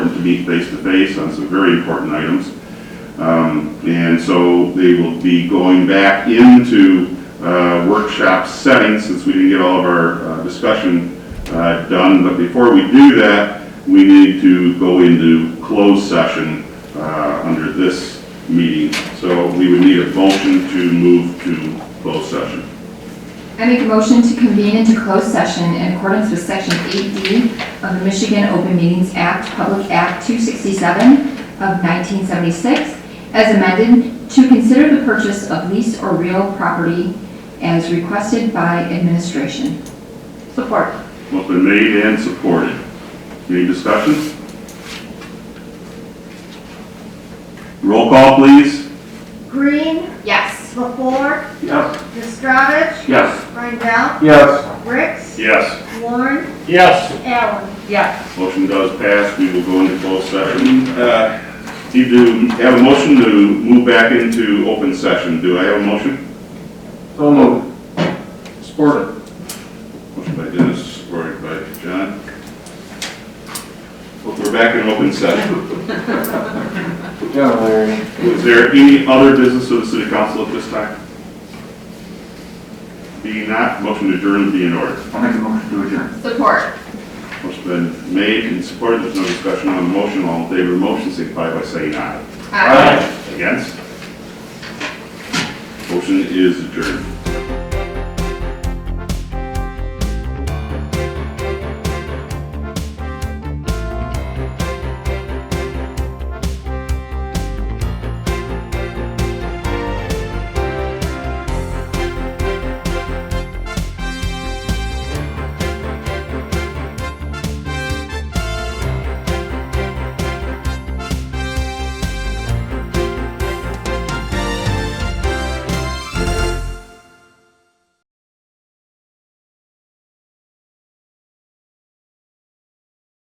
meet face-to-face on some very important items. Um, And so they will be going back into uh, workshop setting, since we didn't get all of our uh, discussion uh, done. But before we do that, we need to go into closed session uh, under this meeting. So we would need a motion to move to closed session. I make a motion to convene into closed session in accordance with Section 8D of the Michigan Open Meetings Act, Public Act 267 of 1976, as amended, to consider the purchase of lease or real property as requested by administration. Support. Well, been made and supported. Any discussion? Roll call, please. Green, Yes. LaFour, Yes. Nastravich, Yes. Rydell, Yes. Ricks, Yes. Warren, Yes. Allen. Motion does pass, we will go into closed session. Uh, You do have a motion to move back into open session, do I have a motion? So moved. Support Motion by Dennis, supported by John. We're back in open session. it. Yeah, Larry. Is there any other business of the city council at this time? Being not, motion to adjourn be in order. I'll make a motion to adjourn. Support. Motion's been made and supported, there's no discussion on the motion, all in favor of the motion, signify by saying aye. Against? Motion is adjourned.